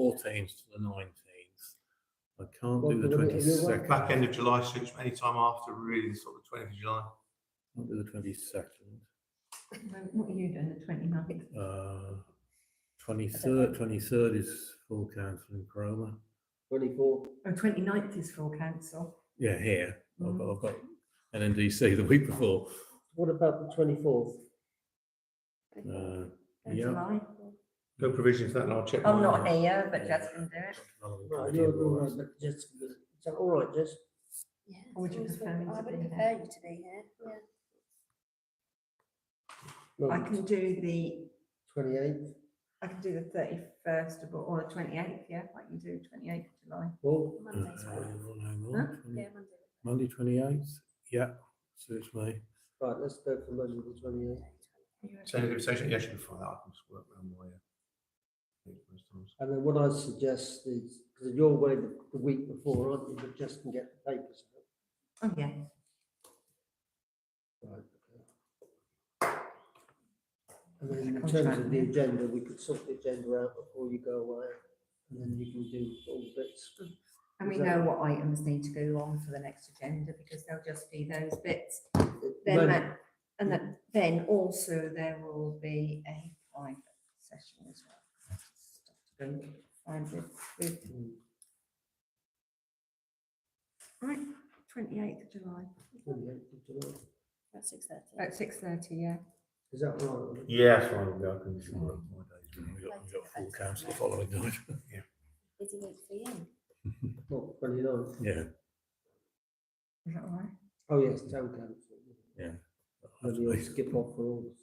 fourteenth to the nineteenth. I can't Well, do the we're gonna- we're twenty-second. working- Back end of July suits me, anytime after really sort of twentieth of July. Can't do the twenty-second. Well, What are you doing the 29th? Uh, twenty-third, twenty-third is full council in Cromer. Twenty-four, Oh, 29th is full council. Yeah, here. I've got, Mm. I've got NNDC the week before. what about the twenty-fourth? Uh, of yeah. July. No provision for that, and I'll check. uh, I'm mine not out. here, but Yeah. Jess can do it. Another one No, coming you're in, all right. right, but just, is that all right, Jess? Yeah, Or would you it's always prefer me been- to I would be prefer there? you to be here, yeah. I can do the, Twenty-eighth, I can do the thirty-first of, or the twenty-eighth, yeah, I can do twenty-eighth of July. Paul, Monday's Uh, Mm-hmm. fine. hang on, hang Huh? on. Twenty- Yeah, Monday. Monday, twenty-eighth? Yeah, suits me. right, let's go for Monday the twenty-eighth. So the session, yes, before that, I can just work around my. uh, most times. And then what I suggest is, because you're away the, the week before, aren't you, but just can get the papers. Oh, yeah. out. Right. And then in Contract, terms of the yeah. agenda, we could sort the agenda out before you go away, and then you can do all the bits. And we know what items need to go on for the next agenda because they'll just be those bits. Then Monday- that, and that, then also there will be a private session as well. Stuff to go Find with, with. Right, twenty-eighth of July, 28th of July. That's six thirty. about six thirty, yeah. Is that right? Yeah, fine, yeah, I can just work my days. We've got, we've got full council the following night. Busy week for you. Well, 29th. Yeah. Is that all right? Oh, yes, town council. Then you'll absolutely. skip off for August.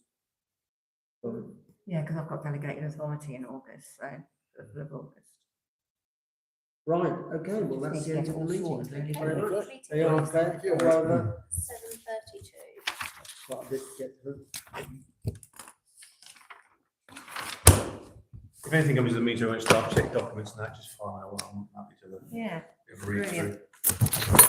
Right, Yeah, because I've got delegated authority in August, so of- of August. Right, okay, well, Just that's need to the end of get it the all meeting. sorted, Thank you really. very much. Are you Seven okay? All right, Matt? thirty-two. What I did get through. If anything comes to the meeting, I won't start check documents and that, just find out what I'm happy to look. Yeah. Read through. Brilliant.